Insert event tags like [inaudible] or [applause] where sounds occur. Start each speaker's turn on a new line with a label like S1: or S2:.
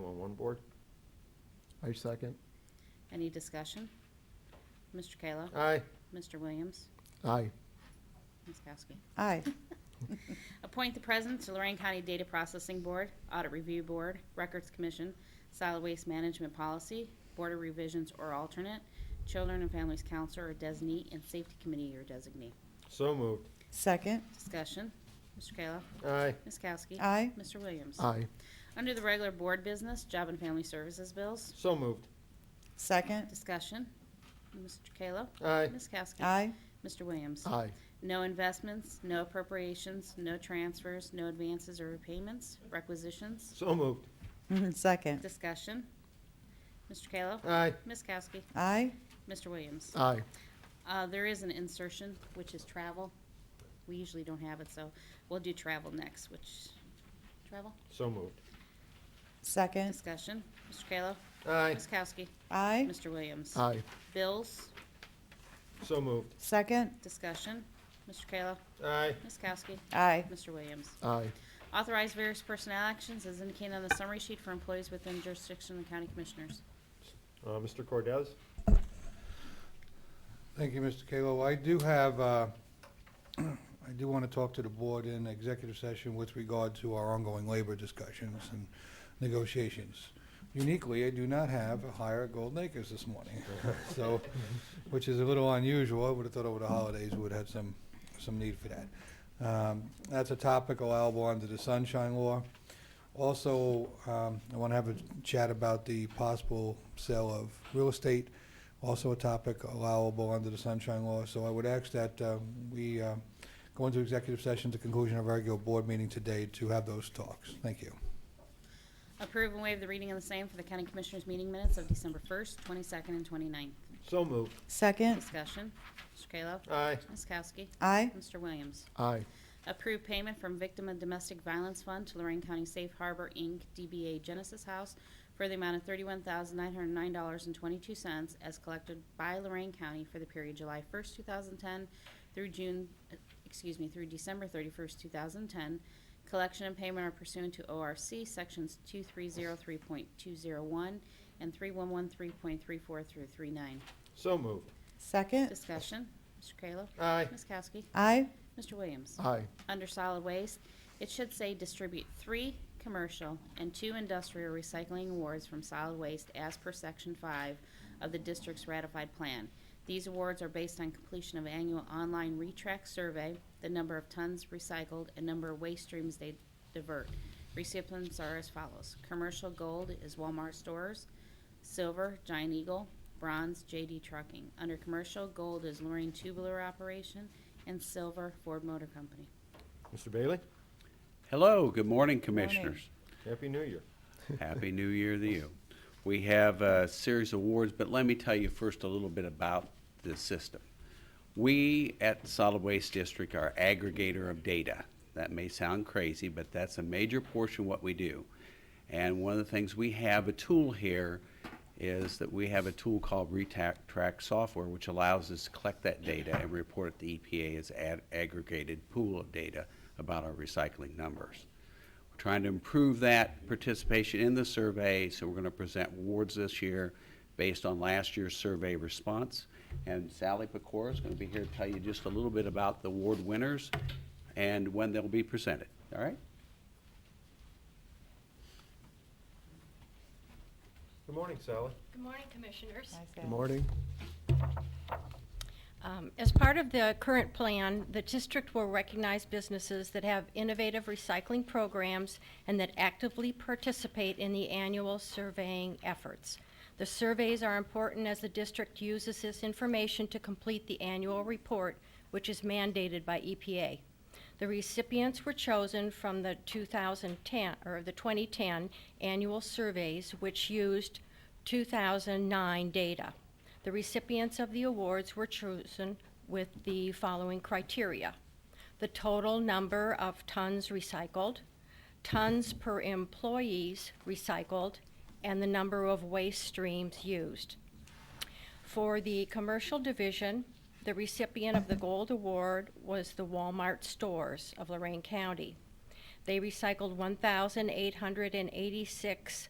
S1: Board. I second.
S2: Any discussion? Mr. Kayla?
S1: Aye.
S2: Mr. Williams?
S1: Aye.
S2: Ms. Kowski?
S3: Aye.
S2: Appoint the president to Lorraine County Data Processing Board, Audit Review Board, Records Commission, Solid Waste Management Policy, Board of Revisions or alternate, Children and Families Counselor or designee, and Safety Committee or designee.
S1: So moved.
S3: Second.
S2: Discussion. Mr. Kayla?
S1: Aye.
S2: Ms. Kowski?
S3: Aye.
S2: Mr. Williams?
S1: Aye.
S2: Under the regular board business, Job and Family Services bills.
S1: So moved.
S3: Second.
S2: Discussion. Mr. Kayla?
S1: Aye.
S2: Ms. Kowski?
S3: Aye.
S2: Mr. Williams?
S1: Aye.
S2: No investments, no appropriations, no transfers, no advances or repayments, requisitions.
S1: So moved.
S3: Second.
S2: Discussion. Mr. Kayla?
S1: Aye.
S2: Ms. Kowski?
S3: Aye.
S2: Mr. Williams?
S1: Aye.
S2: Uh, There is an insertion, which is travel. We usually don't have it, so we'll do travel next, which, travel?
S1: So moved.
S3: Second.
S2: Discussion. Mr. Kayla?
S1: Aye.
S2: Ms. Kowski?
S3: Aye.
S2: Mr. Williams?
S1: Aye.
S2: Bills?
S1: So moved.
S3: Second.
S2: Discussion. Mr. Kayla?
S1: Aye.
S2: Ms. Kowski?
S3: Aye.
S2: Mr. Williams?
S1: Aye.
S2: Authorize various personnel actions as indicated on the summary sheet for employees within jurisdiction of the county commissioners.
S1: Uh, Mr. Cordez?
S4: Thank you, Mr. Kallo. I do have, uh, I do want to talk to the board in executive session with regard to our ongoing labor discussions and negotiations. Uniquely, I do not have a hire at Golden Acres this morning, [laughs] so, which is a little unusual. I would have thought over the holidays we would have some, some need for that. Um, That's a topic allowable under the sunshine law. Also, um, I want to have a chat about the possible sale of real estate, also a topic allowable under the sunshine law. So I would ask that uh, we uh, go into executive session at the conclusion of our regular board meeting today to have those talks. Thank you.
S2: Approve and waive the reading of the same for the county commissioners' meeting minutes of December 1st, 22nd, and 29th.
S1: So moved.
S3: Second.
S2: Discussion. Mr. Kayla?
S1: Uh, Aye.
S2: Ms. Kowski?
S3: Aye.
S2: Mr. Williams?
S1: Aye.
S2: Approve payment from Victim of Domestic Violence Fund to Lorraine County Safe Harbor, Inc., DBA Genesis House, for the amount of $31,909.22 as collected by Lorraine County for the period July 1st, 2010 through June, uh, excuse me, through December 31st, 2010. Collection and payment are pursuant to ORC Sections 2303.201 and 3113.34 through 39.
S1: So moved.
S3: Second.
S2: Discussion, Mr. Kayla.
S1: Aye.
S2: Ms. Kowski.
S3: Aye.
S2: Mr. Williams.
S1: Aye.
S2: Under solid waste, it should say distribute three commercial and two industrial recycling awards from solid waste as per section five of the district's ratified plan. These awards are based on completion of annual online retrack survey, the number of tons recycled, and number of waste streams they divert. Recipients are as follows. Commercial gold is Walmart stores. Silver, Giant Eagle. Bronze, JD Trucking. Under commercial, gold is Lorraine Tubular Operation, and silver, Ford Motor Company.
S1: Mr. Bailey?
S5: Hello, good morning, Commissioners.
S1: Happy New Year.
S5: Happy New Year to you. We have a series of awards, but let me tell you first a little bit about the system. We at Solid Waste District are aggregator of data. That may sound crazy, but that's a major portion of what we do. And one of the things we have a tool here is that we have a tool called ReTrack software, which allows us to collect that data and report it to EPA as ad- aggregated pool of data about our recycling numbers. We're trying to improve that participation in the survey, so we're going to present awards this year based on last year's survey response. And Sally Pecora is going to be here to tell you just a little bit about the award winners and when they'll be presented, all right?
S1: Good morning, Sally.
S6: Good morning, Commissioners.
S1: Good morning.
S6: Um, As part of the current plan, the district will recognize businesses that have innovative recycling programs and that actively participate in the annual surveying efforts. The surveys are important as the district uses this information to complete the annual report, which is mandated by E EPA. The recipients were chosen from the 2010, or the 2010 annual surveys, which used 2009 data. The recipients of the awards were chosen with the following criteria. The total number of tons recycled, tons per employees recycled, and the number of waste streams used. For the commercial division, the recipient of the gold award was the Walmart stores of Lorraine County. They recycled 1,886